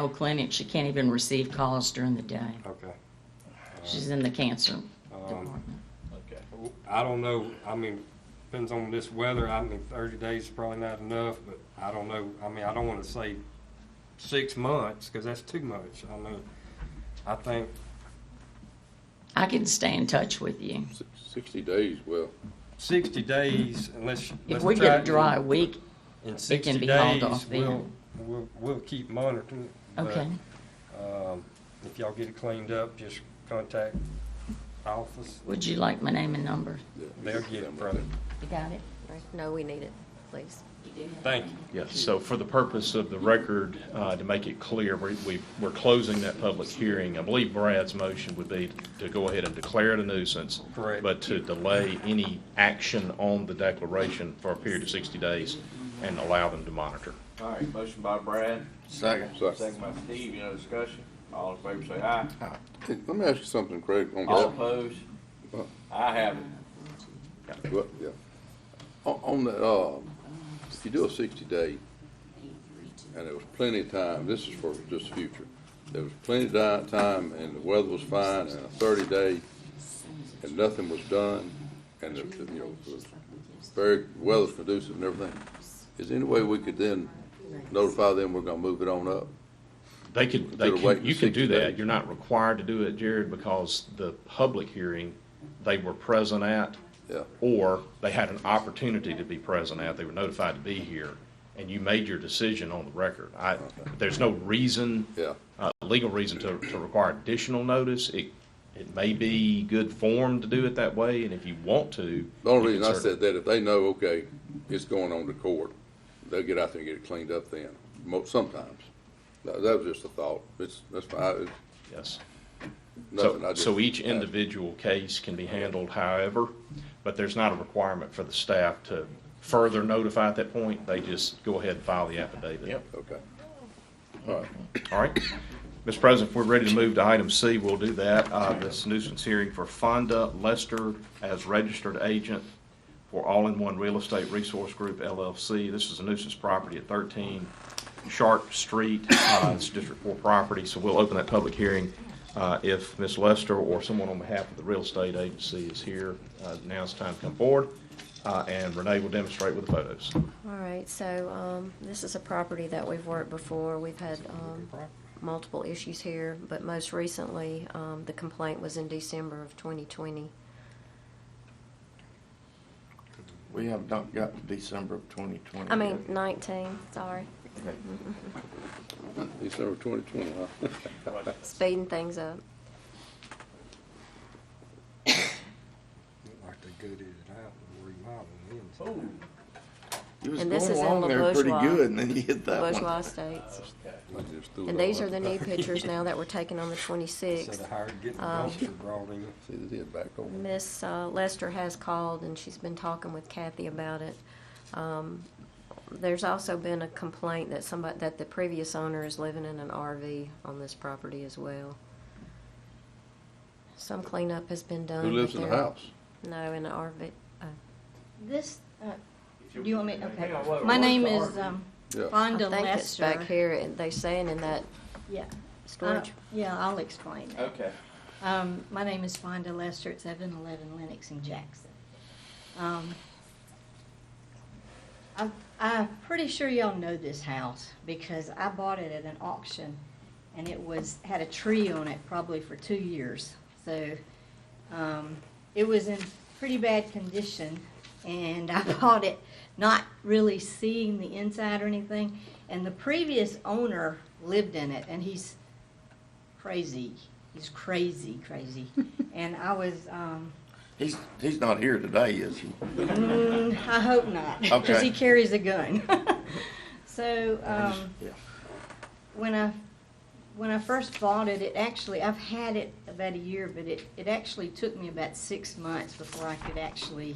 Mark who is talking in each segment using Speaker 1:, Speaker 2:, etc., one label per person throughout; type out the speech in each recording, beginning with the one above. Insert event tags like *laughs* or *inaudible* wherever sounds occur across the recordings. Speaker 1: whole clinic. She can't even receive calls during the day.
Speaker 2: Okay.
Speaker 1: She's in the cancer
Speaker 2: Um,
Speaker 1: department.
Speaker 3: Okay.
Speaker 2: I don't know, I mean, depends on this weather, I mean, thirty days is probably not enough, but I don't know, I mean, I don't wanna say six months, cause that's too much, I mean, I think,
Speaker 1: I can stay in touch with you.
Speaker 4: Six- Sixty days, well,
Speaker 2: sixty days, unless.
Speaker 1: If
Speaker 2: let's
Speaker 1: we
Speaker 2: try
Speaker 1: get a
Speaker 2: it
Speaker 1: dry
Speaker 2: in-
Speaker 1: week, it
Speaker 2: in
Speaker 1: can
Speaker 2: 60
Speaker 1: be hauled
Speaker 2: days,
Speaker 1: off
Speaker 2: We'll,
Speaker 1: then.
Speaker 2: we'll, we'll keep monitoring it. but,
Speaker 1: Okay.
Speaker 2: Um, if y'all get it cleaned up, just contact office,
Speaker 1: Would you like my name and number?
Speaker 4: yeah.
Speaker 2: they'll get it, brother.
Speaker 1: You got it?
Speaker 5: No, we need it, please.
Speaker 2: Thank you.
Speaker 3: Yes, so for the purpose of the record, uh, to make it clear, we- we- we're closing that public hearing. I believe Brad's motion would be to go ahead and declare it a nuisance.
Speaker 2: Correct.
Speaker 3: But to delay any action on the declaration for a period of 60 days and allow them to monitor.
Speaker 6: All right, motion by Brad.
Speaker 4: Second. Second.
Speaker 6: Second by Steve, you know, discussion, all in favor say aye.
Speaker 4: Hey, Let me ask you something, Craig, on
Speaker 6: All
Speaker 4: that.
Speaker 6: opposed? I have it.
Speaker 4: Well, yeah. On, on that, uh, if you do a sixty day, and there was plenty of time, this is for just the future. There was plenty of di- time and the weather was fine and a thirty day and nothing was done and the, the, you know, the very weather's conducive and everything. Is there any way we could then notify them we're gonna move it on up?
Speaker 3: They could, they
Speaker 4: They're
Speaker 3: could,
Speaker 4: waiting
Speaker 3: you can do
Speaker 4: 60
Speaker 3: that.
Speaker 4: days.
Speaker 3: You're not required to do it, Jared, because the public hearing, they were present at.
Speaker 4: Yeah.
Speaker 3: Or they had an opportunity to be present at, they were notified to be here, and you made your decision on the record. I, there's no reason.
Speaker 4: Yeah.
Speaker 3: Uh, legal reason to, to require additional notice. It, it may be good form to do it that way, and if you want to.
Speaker 4: The only
Speaker 3: you can
Speaker 4: reason I
Speaker 3: certainly-
Speaker 4: said that, if they know, okay, it's going on to court, they'll get out there and get it cleaned up then, mo- sometimes. That, that was just a thought, it's, that's my, it's
Speaker 3: Yes.
Speaker 4: nothing, I
Speaker 3: So,
Speaker 4: just.
Speaker 3: so each individual case can be handled however, but there's not a requirement for the staff to further notify at that point. They just go ahead and file the affidavit. Yep.
Speaker 4: Okay. All right,
Speaker 3: All right. Mr. President, if we're ready to move to item C, we'll do that. Uh, This nuisance hearing for Fonda Lester as registered agent for All-in-One Real Estate Resource Group LLC. This is a nuisance property at 13 Sharp Street. Uh, It's District 4 property, so we'll open that public hearing. Uh, If Ms. Lester or someone on behalf of the real estate agency is here, uh, now's the time to come forward, Uh, and Renee will demonstrate with the photos.
Speaker 5: All right, so um, this is a property that we've worked before. We've had um, multiple issues here, but most recently, um, the complaint was in December of 2020.
Speaker 7: We have not got to December of twenty twenty.
Speaker 5: I mean, 19, sorry.
Speaker 4: December twenty twenty,
Speaker 7: *laughs*
Speaker 4: huh?
Speaker 5: Speeding things up.
Speaker 2: Like they gutted it out and remodeled it.
Speaker 7: You was
Speaker 5: And this
Speaker 7: going
Speaker 5: is in
Speaker 7: along
Speaker 5: La
Speaker 7: there pretty
Speaker 5: Bourgeois.
Speaker 7: good, and then you hit that
Speaker 5: Bourgeois
Speaker 7: one.
Speaker 5: Estates.
Speaker 4: I just threw
Speaker 5: And
Speaker 4: it all
Speaker 5: these are
Speaker 4: up.
Speaker 5: the new pictures now that were taken on the
Speaker 2: So they
Speaker 5: 26th.
Speaker 2: hired, getting the
Speaker 5: Um,
Speaker 2: dumpster brought in.
Speaker 4: See, they did back over.
Speaker 5: Miss uh, Lester has called, and she's been talking with Kathy about it. Um, There's also been a complaint that somebody, that the previous owner is living in an RV on this property as well. Some cleanup has been done.
Speaker 4: Who
Speaker 5: but
Speaker 4: lives in the
Speaker 5: there-
Speaker 4: house?
Speaker 5: No, in an RV. uh,
Speaker 8: This, uh, do you want me, okay.
Speaker 6: Hang on, what-
Speaker 8: My
Speaker 6: what's
Speaker 8: name
Speaker 6: the
Speaker 8: is
Speaker 6: argument?
Speaker 8: um,
Speaker 4: Yeah,
Speaker 5: I
Speaker 8: Fonda
Speaker 5: think it's
Speaker 8: Lester.
Speaker 5: back here, and they saying in that
Speaker 8: Yeah. I-
Speaker 5: storage.
Speaker 8: Yeah, I'll explain that.
Speaker 6: Okay.
Speaker 8: Um, my name is Fonda Lester. It's seven eleven Lennox and Jackson. Um, I, I'm pretty sure y'all know this house because I bought it at an auction, and it was had a tree on it probably for two years. So, um, it was in pretty bad condition, and I *laughs* bought it not really seeing the inside or anything. And the previous owner lived in it, and he's crazy. He's crazy, crazy. and I was, um,
Speaker 7: He's, he's not here today, is he?
Speaker 5: Um,
Speaker 8: mm, I hope not, because
Speaker 7: Okay.
Speaker 8: he carries a gun. *laughs* so um,
Speaker 7: Yeah.
Speaker 8: when I when I first bought it, it actually I've had it about a year, but it it actually took me about six months before I could actually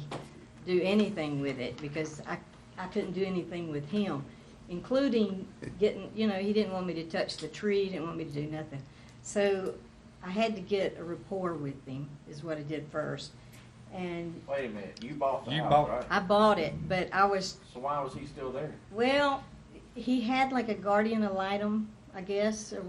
Speaker 8: do anything with it because I I couldn't do anything with him, including getting you know he didn't want me to touch the tree, he didn't want me to do nothing, so. I had to get a rapport with him, is what I did first. And
Speaker 6: Wait a minute, you bought the
Speaker 2: You
Speaker 6: house,
Speaker 2: bought-
Speaker 6: right?
Speaker 8: I bought it, but I was,
Speaker 6: So why was he still there?
Speaker 8: well, he had like a guardian ad litem, I guess, or